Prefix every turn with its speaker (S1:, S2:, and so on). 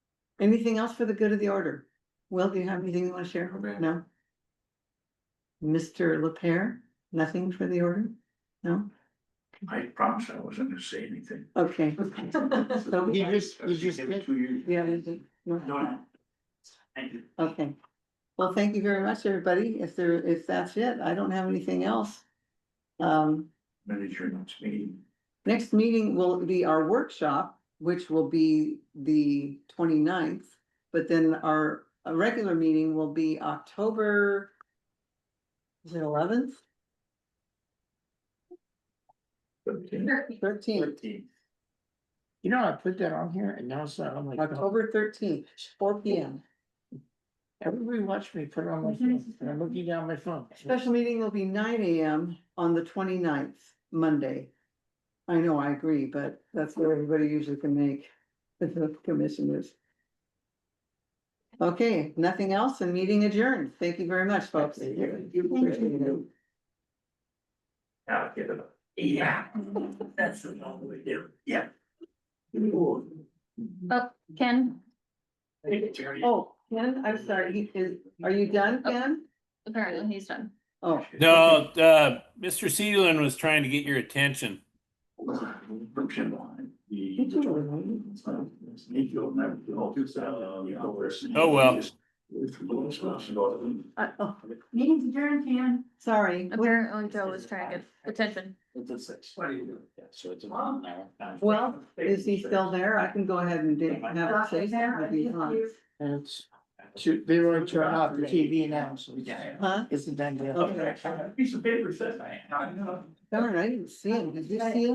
S1: Anything else for the good of the order? Will, do you have anything you want to share?
S2: No, ma'am.
S1: No? Mr. LaPere, nothing for the order? No?
S2: I promise I wasn't gonna say anything.
S1: Okay. So,
S3: You just, you just
S2: Give
S3: did.
S2: it two years.
S1: yeah, there's a-
S2: No,
S1: no.
S2: no. Thank you.
S1: Okay. Well, thank you very much, everybody. If there, if that's it, I don't have anything else. Um,
S2: Manager next meeting.
S1: next meeting will be our workshop, which will be the 29th. But then our uh, regular meeting will be October is it eleventh, thirteenth,
S2: Thirteen.
S3: You know, I put that on here and now it's not on my phone.
S1: October thirteenth, four P M.
S3: Everybody watched me put it on my phone and I'm looking down my phone.
S1: Special meeting will be nine A M on the 29th, Monday. I know, I agree, but that's what everybody usually can make, the commissioners. Okay, nothing else and meeting adjourned. Thank you very much, folks.
S2: Now give it up. Yeah, that's the wrong way to do it. Yeah. Ooh.
S4: Ken,
S1: Oh, Ken, I'm sorry, he is, are you done, Ken?
S4: apparently he's done.
S1: Oh,
S5: No, uh, Mr. Seedlin was trying to get your attention.
S2: Friction line.
S1: You do it, right?
S2: You'll never go to that, you know, there's-
S5: Oh, well.
S1: I, oh,
S6: Meeting's adjourned, Ken.
S1: sorry.
S4: Apparently Joe was trying to get attention.
S2: It's a six. What do you do? Yeah, so it's a long hour.
S1: Well, Is he still there? I can go ahead and do- have a say. something if you want.
S3: That's, shoot, they already turned off the TV now, so. it's-
S2: Yeah.
S1: Huh?
S3: It's a done deal.
S1: Okay.
S2: Piece of paper says I. I know.
S1: Darn, I didn't see him. Did you see him?